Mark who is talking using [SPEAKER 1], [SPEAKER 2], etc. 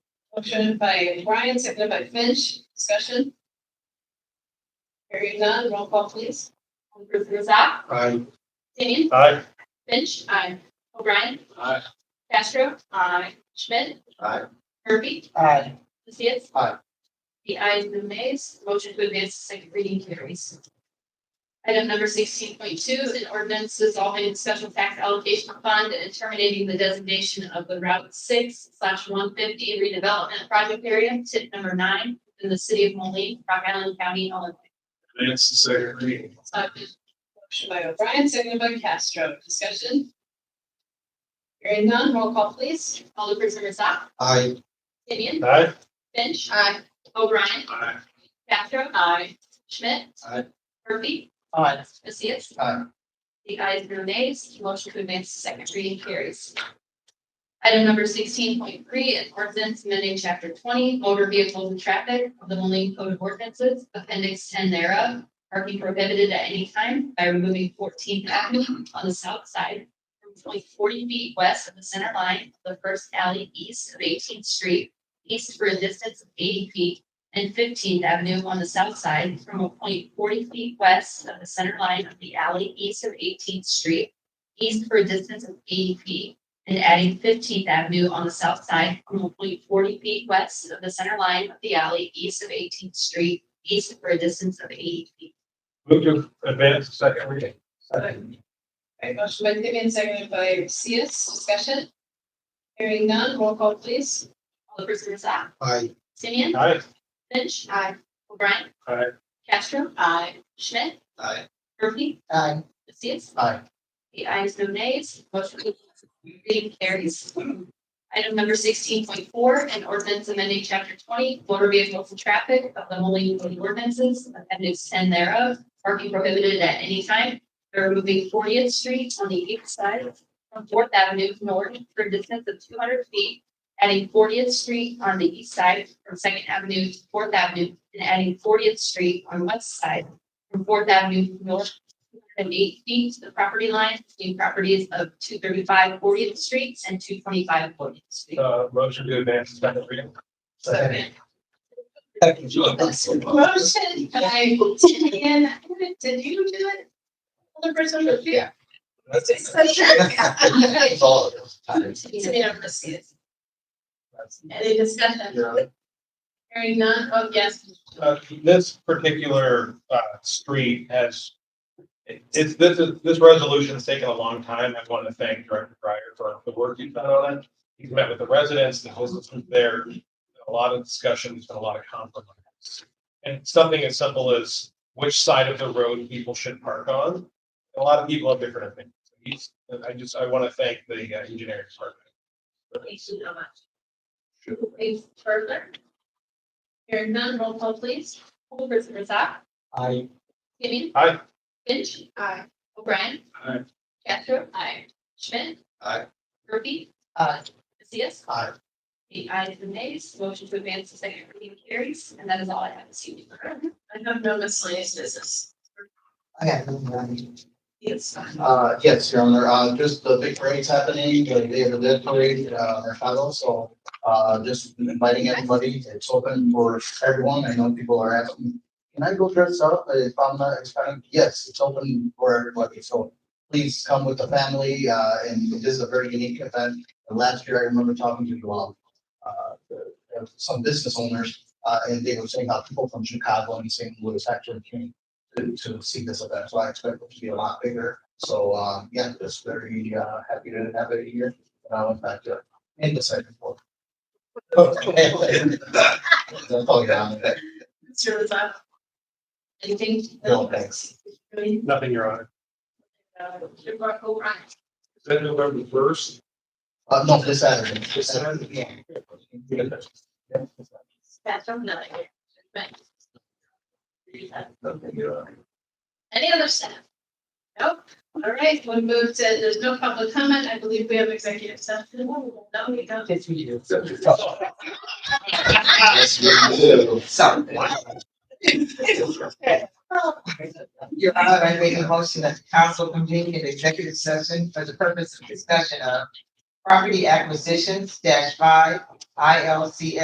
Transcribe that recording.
[SPEAKER 1] Motion by Brian, seconded by Finch, discussion. Hearing none, roll call please.
[SPEAKER 2] Ruth Rosak,
[SPEAKER 3] Aye.
[SPEAKER 2] Dane,
[SPEAKER 3] Aye.
[SPEAKER 2] Finch, I, O'Brien,
[SPEAKER 3] Aye.
[SPEAKER 2] Castro, I, Schmidt,
[SPEAKER 3] Aye.
[SPEAKER 2] Murphy,
[SPEAKER 4] Aye.
[SPEAKER 2] Lucius.
[SPEAKER 3] Aye.
[SPEAKER 2] The ayes and the nays, motion to advance to second reading carries. Item number sixteen point two, an ordinance dissolving special tax allocation fund and terminating the designation of the Route six slash one fifty redevelopment project area, tip number nine, in the city of Moline, Rock Island County, Illinois.
[SPEAKER 3] Advance the second reading.
[SPEAKER 2] Uh,
[SPEAKER 1] Motion by O'Brien, seconded by Castro, discussion. Hearing none, roll call please.
[SPEAKER 2] Alderperson Razzak,
[SPEAKER 3] Aye.
[SPEAKER 2] Timian,
[SPEAKER 3] Aye.
[SPEAKER 2] Finch,
[SPEAKER 1] Aye.
[SPEAKER 2] O'Brien,
[SPEAKER 3] Aye.
[SPEAKER 2] Castro, I, Schmidt.
[SPEAKER 3] Aye.
[SPEAKER 2] Murphy,
[SPEAKER 4] Aye.
[SPEAKER 2] Lucius.
[SPEAKER 3] Aye.
[SPEAKER 2] The ayes, no nays, motion to advance to second reading carries. Item number sixteen point three, an ordinance amending chapter twenty, motor vehicles and traffic of the Moline Code of Ordinances, appendix ten thereof, parking prohibited at any time by removing Fourteenth Avenue on the south side from point forty feet west of the center line of the first alley east of Eighteenth Street, east for a distance of eighty feet, and Fifteenth Avenue on the south side from a point forty feet west of the center line of the alley east of Eighteenth Street, east for a distance of eighty feet, and adding Fifteenth Avenue on the south side from a point forty feet west of the center line of the alley east of Eighteenth Street, east for a distance of eighty feet.
[SPEAKER 3] Move to advance the second reading.
[SPEAKER 1] Alright, motion by Vivian, seconded by Lucius, discussion. Hearing none, roll call please.
[SPEAKER 2] Alderperson Razzak,
[SPEAKER 3] Aye.
[SPEAKER 2] Timian,
[SPEAKER 3] Aye.
[SPEAKER 2] Finch. Aye. O'Brien.
[SPEAKER 3] Aye.
[SPEAKER 2] Castro. Aye. Schmidt.
[SPEAKER 3] Aye.
[SPEAKER 2] Murphy.
[SPEAKER 4] Aye.
[SPEAKER 2] Lucius.
[SPEAKER 3] Aye.
[SPEAKER 2] The ayes, no nays, motion reading carries. Item number sixteen point four, an ordinance amending chapter twenty, motor vehicles and traffic of the Moline Code of Ordinances, appendix ten thereof, parking prohibited at any time. They're removing Fortieth Street on the east side from Fourth Avenue north for a distance of two hundred feet, adding Fortieth Street on the east side from Second Avenue to Fourth Avenue, and adding Fortieth Street on west side from Fourth Avenue north and eight feet to the property line between properties of 235 40th Street and 225 40th Street.
[SPEAKER 3] Uh, motion to advance the second reading.
[SPEAKER 4] Second.
[SPEAKER 1] Motion by Vivian, did you do it? Other person, yeah. Discussion. Timian, Lucius. Any discussion? Hearing none, oh, yes.
[SPEAKER 5] uh, this particular, uh, street has, it- it's, this is, this resolution's taken a long time. I want to thank Director Pryor for the work he's done on it. He's met with the residents, the business group there, a lot of discussion, there's been a lot of compromise. And something as simple as which side of the road people should park on. A lot of people have different opinions. He's, and I just, I want to thank the uh, engineering department.
[SPEAKER 2] Thank you so much. Please further. Hearing none, roll call please. Alderperson Razzak,
[SPEAKER 3] Aye.
[SPEAKER 2] Gideon.
[SPEAKER 5] Aye.
[SPEAKER 2] Finch. Aye. O'Brien.
[SPEAKER 3] Aye.
[SPEAKER 2] Castro. Aye. Schmidt.
[SPEAKER 3] Aye.
[SPEAKER 2] Murphy.
[SPEAKER 4] Aye.
[SPEAKER 2] Lucius.
[SPEAKER 3] Aye.
[SPEAKER 2] The ayes and nays, motion to advance to second reading carries, and that is all I have this evening.
[SPEAKER 1] I have no miscellaneous business.
[SPEAKER 4] I got no money.
[SPEAKER 1] Yes.
[SPEAKER 3] Uh, yes, Your Honor, uh, just the big parade's happening, the day of the dead parade, uh, in Chicago, so, uh, just inviting everybody, it's open for everyone, I know people are asking, can I go dress up if I'm not expecting, yes, it's open for everybody, so please come with the family, uh, and it is a very unique event, and last year I remember talking to, um, uh, the- some business owners, uh, and they were saying how people from Chicago and St. Louis actually came to, to see this event, so I expect it to be a lot bigger, so, um, yeah, just very, uh, happy to have it here. And I went back to end the second floor. That's all you have.
[SPEAKER 1] Mr. Lazat.
[SPEAKER 2] Anything?
[SPEAKER 3] No, thanks.
[SPEAKER 1] Really?
[SPEAKER 5] Nothing, Your Honor.
[SPEAKER 1] Uh, O'Brien.
[SPEAKER 5] Is that November first?
[SPEAKER 3] Uh, no, this Saturday. This
[SPEAKER 5] Saturday?
[SPEAKER 3] Yeah.
[SPEAKER 2] Castro, none. Right.
[SPEAKER 3] Nothing, Your Honor.
[SPEAKER 2] Any other staff?
[SPEAKER 1] All right, we moved to, there's no public comment. I believe we have executive session. No, we don't.
[SPEAKER 4] Yes, we do.
[SPEAKER 3] Sorry.
[SPEAKER 4] Your Honor, I make a motion that the council convene an executive session for the purpose of discussion of property acquisitions dash five I L C